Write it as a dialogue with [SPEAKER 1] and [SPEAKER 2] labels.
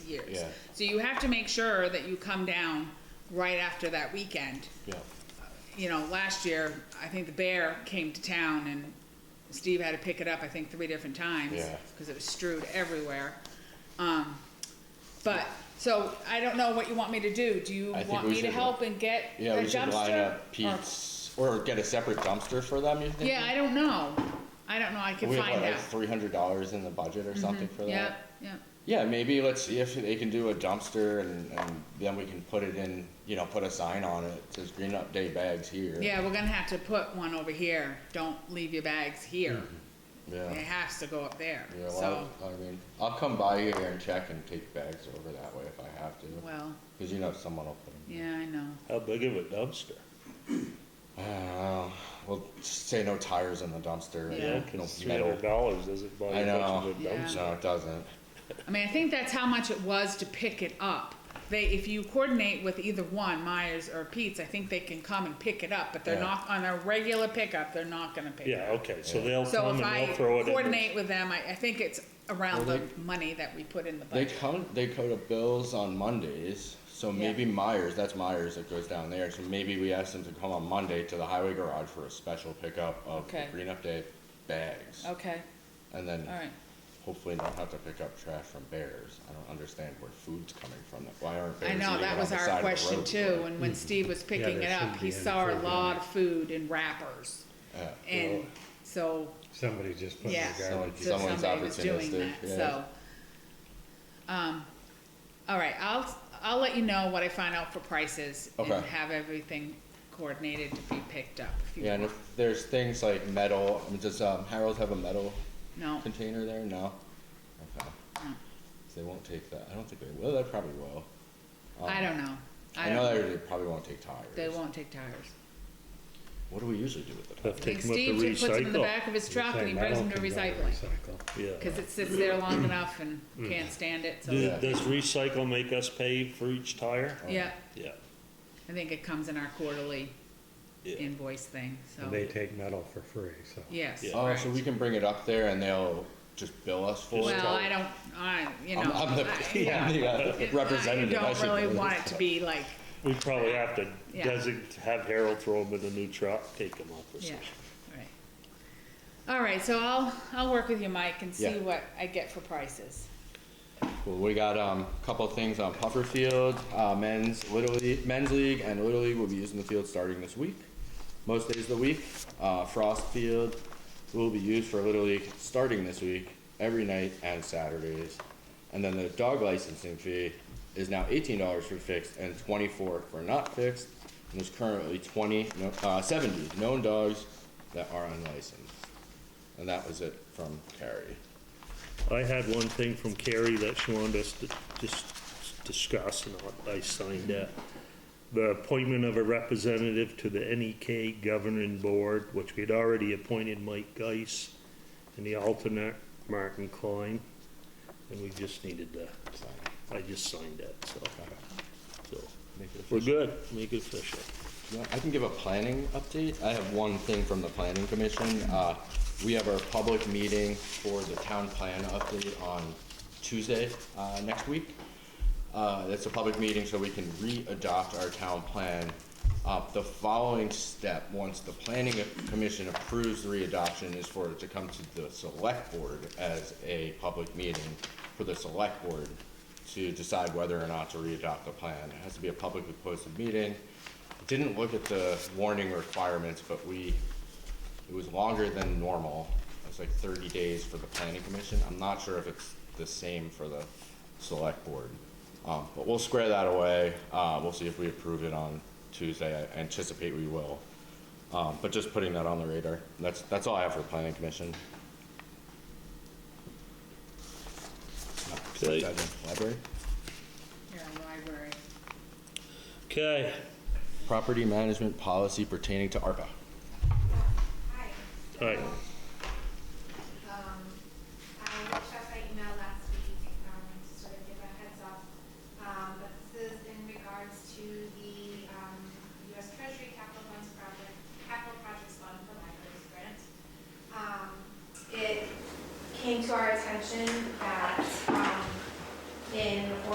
[SPEAKER 1] years.
[SPEAKER 2] Yeah.
[SPEAKER 1] So you have to make sure that you come down right after that weekend.
[SPEAKER 2] yeah,
[SPEAKER 1] You know, last year, I think the bear came to town and Steve had to pick it up, I think, three different times.
[SPEAKER 2] Yeah.
[SPEAKER 1] Because it was strewed everywhere. Um, but, so I don't know what you want me to do. Do you
[SPEAKER 2] I think
[SPEAKER 1] want
[SPEAKER 2] we
[SPEAKER 1] me to
[SPEAKER 2] should-
[SPEAKER 1] help and get a
[SPEAKER 2] yeah, we should line
[SPEAKER 1] dumpster?
[SPEAKER 2] up
[SPEAKER 1] Or-
[SPEAKER 2] Pete's, or get a separate dumpster for them, you think?
[SPEAKER 1] Yeah, I don't know. I don't know. I can
[SPEAKER 2] We have,
[SPEAKER 1] find
[SPEAKER 2] what, like,
[SPEAKER 1] out. Mm-hmm.
[SPEAKER 2] three hundred dollars in the budget or something for that?
[SPEAKER 1] Yeah, yeah.
[SPEAKER 2] Yeah, maybe let's see if they can do a dumpster and, and then we can put it in, you know, put a sign on it, that says Green Up Day bags here.
[SPEAKER 1] Yeah, we're gonna have to put one over here. Don't leave your bags here.
[SPEAKER 2] Mm-hmm. Yeah,
[SPEAKER 1] It has to go up there.
[SPEAKER 2] yeah,
[SPEAKER 1] So,
[SPEAKER 2] well, I mean, I'll come by here and check and take bags over that way if I have to,
[SPEAKER 1] well,
[SPEAKER 2] cause you know someone will put them.
[SPEAKER 1] yeah, I know.
[SPEAKER 3] How big of a dumpster?
[SPEAKER 2] Uh, well, say no tires in the dumpster,
[SPEAKER 1] Yeah.
[SPEAKER 2] and no
[SPEAKER 3] Cause three
[SPEAKER 2] metal.
[SPEAKER 3] hundred dollars doesn't buy
[SPEAKER 2] I
[SPEAKER 3] you much of
[SPEAKER 2] know,
[SPEAKER 3] a dumpster.
[SPEAKER 2] no, it doesn't,
[SPEAKER 1] I mean, I think that's how much it was to pick it up. They, if you coordinate with either one, Myers or Pete's, I think they can come and pick it up, but they're
[SPEAKER 2] Yeah.
[SPEAKER 1] not, on a regular pickup, they're not gonna pick it
[SPEAKER 3] Yeah,
[SPEAKER 1] up.
[SPEAKER 3] okay, so
[SPEAKER 2] Yeah.
[SPEAKER 3] they'll
[SPEAKER 1] So
[SPEAKER 3] come
[SPEAKER 1] if
[SPEAKER 3] and
[SPEAKER 1] I
[SPEAKER 3] they'll throw it in. the-
[SPEAKER 1] coordinate with them, I, I think it's around
[SPEAKER 2] Well,
[SPEAKER 1] the money that we put in the
[SPEAKER 2] they
[SPEAKER 1] budget.
[SPEAKER 2] count, they code up bills on Mondays, so maybe Myers, that's Myers that goes down there, so maybe we ask them to come on Monday to the highway garage for a special pickup of the
[SPEAKER 1] Okay.
[SPEAKER 2] Green Up Day bags,
[SPEAKER 1] Okay,
[SPEAKER 2] and then
[SPEAKER 1] all right.
[SPEAKER 2] hopefully not have to pick up trash from bears, I don't understand where food's coming from, Like, why aren't bears
[SPEAKER 1] I
[SPEAKER 2] eating it
[SPEAKER 1] know,
[SPEAKER 2] on the
[SPEAKER 1] that was
[SPEAKER 2] side of
[SPEAKER 1] our
[SPEAKER 2] the
[SPEAKER 1] question
[SPEAKER 2] road?
[SPEAKER 1] too, and when Steve was picking
[SPEAKER 4] there
[SPEAKER 1] it up,
[SPEAKER 4] should
[SPEAKER 1] he
[SPEAKER 4] be any
[SPEAKER 1] saw a
[SPEAKER 4] food on
[SPEAKER 1] lot
[SPEAKER 4] it.
[SPEAKER 1] of food in wrappers.
[SPEAKER 2] Yeah.
[SPEAKER 1] And
[SPEAKER 3] Well-
[SPEAKER 1] so,
[SPEAKER 4] Somebody just put it in
[SPEAKER 1] yeah,
[SPEAKER 4] the garbage.
[SPEAKER 1] so
[SPEAKER 2] Someone's
[SPEAKER 1] somebody was doing
[SPEAKER 2] opportunistic,
[SPEAKER 1] that,
[SPEAKER 2] yeah.
[SPEAKER 1] so. Um, all right, I'll, I'll let you know what I find out for prices and
[SPEAKER 2] Okay.
[SPEAKER 1] have everything coordinated to be picked up. if you
[SPEAKER 2] Yeah, and
[SPEAKER 1] want.
[SPEAKER 2] if there's things like metal, I mean, does um, Harold have a metal
[SPEAKER 1] No,
[SPEAKER 2] container there? No? Okay.
[SPEAKER 1] No.
[SPEAKER 2] So They won't take that, I don't think they will, they probably will.
[SPEAKER 1] I
[SPEAKER 2] Um,
[SPEAKER 1] don't know. I
[SPEAKER 2] I know
[SPEAKER 1] don't,
[SPEAKER 2] they they probably won't take tires.
[SPEAKER 1] they won't take tires.
[SPEAKER 2] What do we usually do with the tires?
[SPEAKER 3] Have to
[SPEAKER 1] I
[SPEAKER 3] take
[SPEAKER 1] think
[SPEAKER 3] 'em up to
[SPEAKER 1] Steve just puts them in the
[SPEAKER 3] recycle.
[SPEAKER 1] back of his truck and he brings them to recycling,
[SPEAKER 3] Yeah.
[SPEAKER 1] cause it sits there long enough and
[SPEAKER 3] Mm.
[SPEAKER 1] can't stand it, so,
[SPEAKER 3] Do-
[SPEAKER 2] Yeah.
[SPEAKER 3] Does recycle make us pay for each tire?
[SPEAKER 1] yeah.
[SPEAKER 3] Yeah.
[SPEAKER 1] I think it comes in our quarterly
[SPEAKER 3] Yeah.
[SPEAKER 1] invoice thing, so,
[SPEAKER 4] And they take metal for free, so.
[SPEAKER 1] yes,
[SPEAKER 3] Yeah.
[SPEAKER 2] Oh,
[SPEAKER 1] right.
[SPEAKER 2] so we can bring it up there and they'll just bill us for it?
[SPEAKER 1] Well, I don't, I, you know.
[SPEAKER 2] I'm, I'm the,
[SPEAKER 1] I-
[SPEAKER 2] I'm the uh,
[SPEAKER 1] It-
[SPEAKER 2] representative.
[SPEAKER 1] I
[SPEAKER 2] I
[SPEAKER 1] don't
[SPEAKER 2] should
[SPEAKER 1] really
[SPEAKER 2] do this.
[SPEAKER 1] want it to be like,
[SPEAKER 3] We probably have to
[SPEAKER 1] Yeah.
[SPEAKER 3] designate, have Harold throw them in a new truck, take them up or
[SPEAKER 1] yeah,
[SPEAKER 3] something.
[SPEAKER 1] right. All right, so I'll, I'll work with you, Mike, and see
[SPEAKER 2] Yeah.
[SPEAKER 1] what I get for prices.
[SPEAKER 2] Cool. We got um, a couple of things on Puffer Field. Uh, men's Little League, men's league and Little League will be using the field starting this week. Most days of the week. Uh, Frost Field will be used for Little League starting this week, every night and Saturdays. And then the dog licensing fee is now eighteen dollars for fixed and twenty-four for not fixed. And there's currently twenty, no, uh, seventy known dogs that are unlicensed. And that was it from Carrie.
[SPEAKER 3] I had one thing from Carrie that she wanted us to just discuss, and I signed that. The appointment of a representative to the NEK Governing Board, which we'd already appointed Mike Geis, and the alternate Martin Klein, and we just needed that. I just signed that, so. So, we're good, make it official.
[SPEAKER 2] Yeah, I can give a planning update. I have one thing from the planning commission. Uh, we have our public meeting for the town plan update on Tuesday, uh, next week. Uh, it's a public meeting, so we can re-adopt our town plan. Uh, the following step, once the planning commission approves the re-adoption, is for it to come to the select board as a public meeting for the select board to decide whether or not to re-adopt the plan. It has to be a publicly posted meeting. Didn't look at the warning requirements, but we, it was longer than normal. It was like thirty days for the planning commission. I'm not sure if it's the same for the select board. Um, but we'll square that away. Uh, we'll see if we approve it on Tuesday. I anticipate we will. Um, but just putting that on the radar. That's, that's all I have for the planning commission.
[SPEAKER 3] Okay.
[SPEAKER 2] Library?
[SPEAKER 1] Yeah, library.
[SPEAKER 3] Okay,
[SPEAKER 2] Property management policy pertaining to ARPA.
[SPEAKER 3] all right.